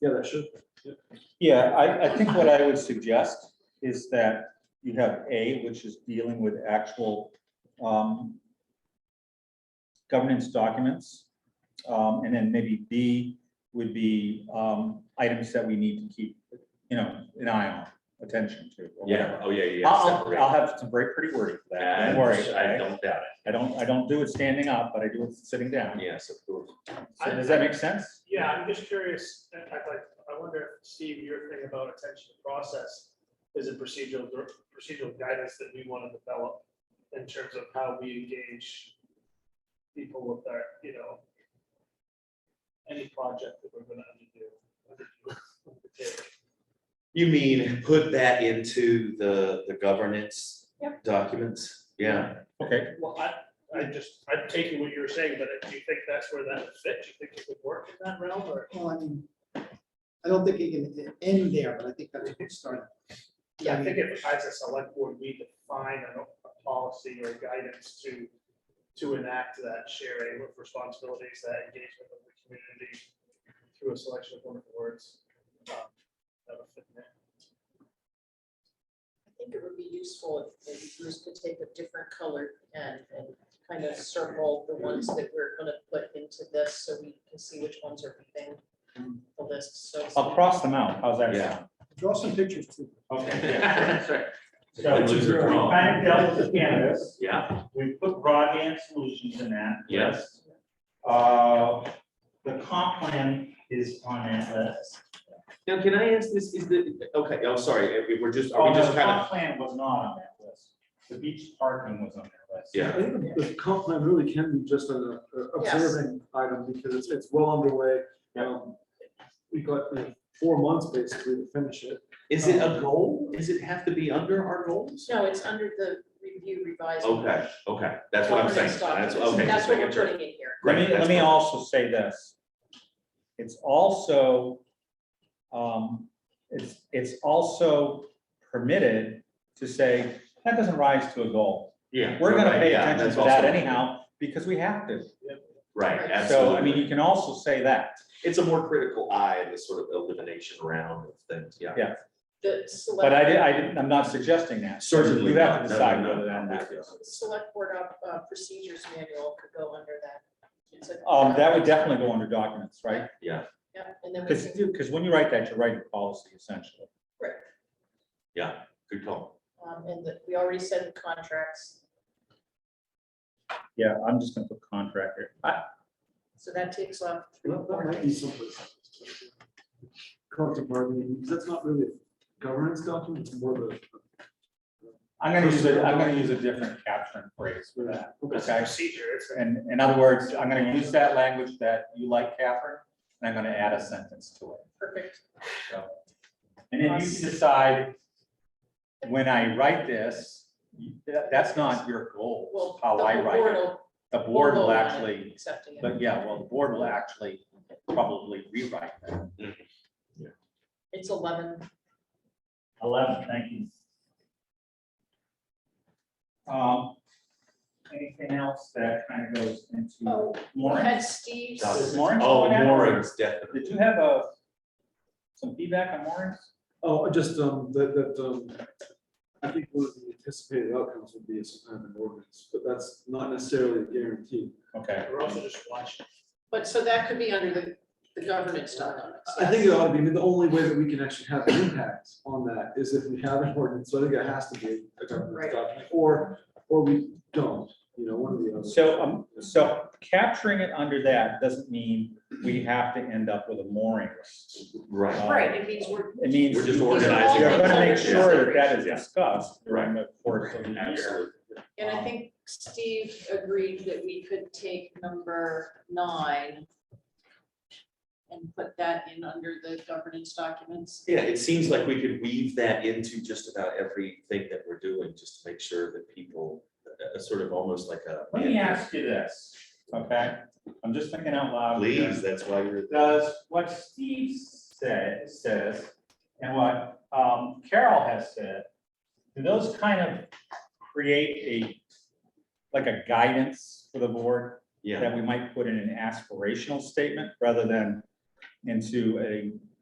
Yeah, that should. Yeah, I, I think what I would suggest is that you have A, which is dealing with actual um, governance documents. Um, And then maybe B would be um, items that we need to keep, you know, an eye on, attention to. or Yeah, whatever. oh, yeah, yeah, I'll, separate. I'll have some very pretty wording for that, don't And worry. I don't doubt I don't, I don't do it standing up, but I do it sitting it, down. yes, of course. So does that make sense? Yeah, I'm just curious, in fact, like, I wonder, if, Steve, your thing about attention to process is a procedural, procedural guidance that we want to develop in terms of how we engage people with our, you know, any project that we're gonna underdo. You mean, put that into the, the governance documents? Yeah, Okay, Well, I, I just, I'm taking what you were saying, but do you think that's where that fits? Do you think it would work in that realm or? Well, I mean, I don't think it can end there, but I think that's a good start. Yeah, I think if as a select board, we define a, a policy or guidance to, to enact that sharing of responsibilities, that engagement of the community through a selection of wonderful words. um, that would fit in there. I think it would be useful if maybe Bruce could take a different colored pen and kind of circle the ones that we're gonna put into this so we can see which ones are within the list, so. I'll cross them out. How's that Yeah. sound? Draw some pictures too. So Good loser we draw. kind of dealt with cannabis, yeah, we put broadband solutions in that. Yes. list. Uh, the comp plan is on that list. now can I ask this, is the, okay, oh, sorry, we- we're just, are Oh, we no, just the kind of, comp plan was not on that list, the beach parking was on that list. Yeah. I think the comp plan really can be just an uh, observing item because it's, it's well underway. Um, We got you know, four months basically to finish it. is it a goal? Does it have to be under our goals? No, it's under the review revised. Okay, okay, that's what I'm saying, that's, governance documents. okay. That's just what making we're sure. putting in here. Let me, Great, let that's me perfect. also say this. It's also, um, it's, it's also permitted to say, that doesn't rise to a goal. Yeah. We're gonna right, pay yeah, attention that's to also- that anyhow, because we have to. Right, So, I mean, absolutely. you can also say that. It's a more critical eye, in this sort of elimination round of things, yeah. Yeah. The select. But I did, I didn't, I'm not suggesting that. Certainly You not. No, no, have to decide no, whether that no. matters. the Select board op- uh, procedures manual could go under that. It's a- Um, that would definitely go under documents, right? Yeah, Yeah, and then we Because, can, when you write that, you're writing policy essentially. yeah, good call. um, and the- we already said the contracts, Yeah, I'm just gonna put contractor. I, so that takes off. three Well, That more might be something. Collective bargaining, because that's not really a governance document, it's more of a. I'm gonna use a, I'm gonna use a different caption phrase for that. It's a Okay. procedure, it's a- And in other words, I'm gonna use that language that you like, Catherine, and I'm gonna add a sentence to it. Perfect. And then you can decide, when I write this, you- that- that's not your goal, Well, how the I whole write board it. will- The board will will vote on it, actually Accepting it. But yeah, well, the board will actually probably rewrite that. It's eleven. Eleven, thank you. Um, anything else that kind of goes into Oh, Lauren? had Steve's. Does Lawrence, Oh, what happened? Warren's definitely. Did you have a, some feedback on Lawrence? Oh, just, um, that, that, um, I think one of the anticipated outcomes would be some kind of an ordinance, but that's not necessarily a guarantee. Okay. We're also just watching. But so that could be under the, the governance documents. I Uh, think it ought to be, I mean, the only way that we can actually have an impact on that is if we have an ordinance, so I think it has to be a government Right. document, or, or we don't, you know, one of the other. So, um, so capturing it under that doesn't mean we have to end up with a moorings. Right, Right, it means we're, It means. We're just you- organizing You're gonna make it. sure that that is discussed during the course of the year. absolutely. and uh, I think Steve agreed that we could take number nine and put that in under the governance documents. Yeah, it seems like we could weave that into just about everything that we're doing, just to make sure that people, uh, sort of almost like a. Let me ask you this, okay? I'm just thinking out loud. here. Please, that's why you're. Does what Steve said, says, and what um, Carol has said, do those kind of create a, like a guidance for the board Yeah, that we might put in an aspirational statement rather than into a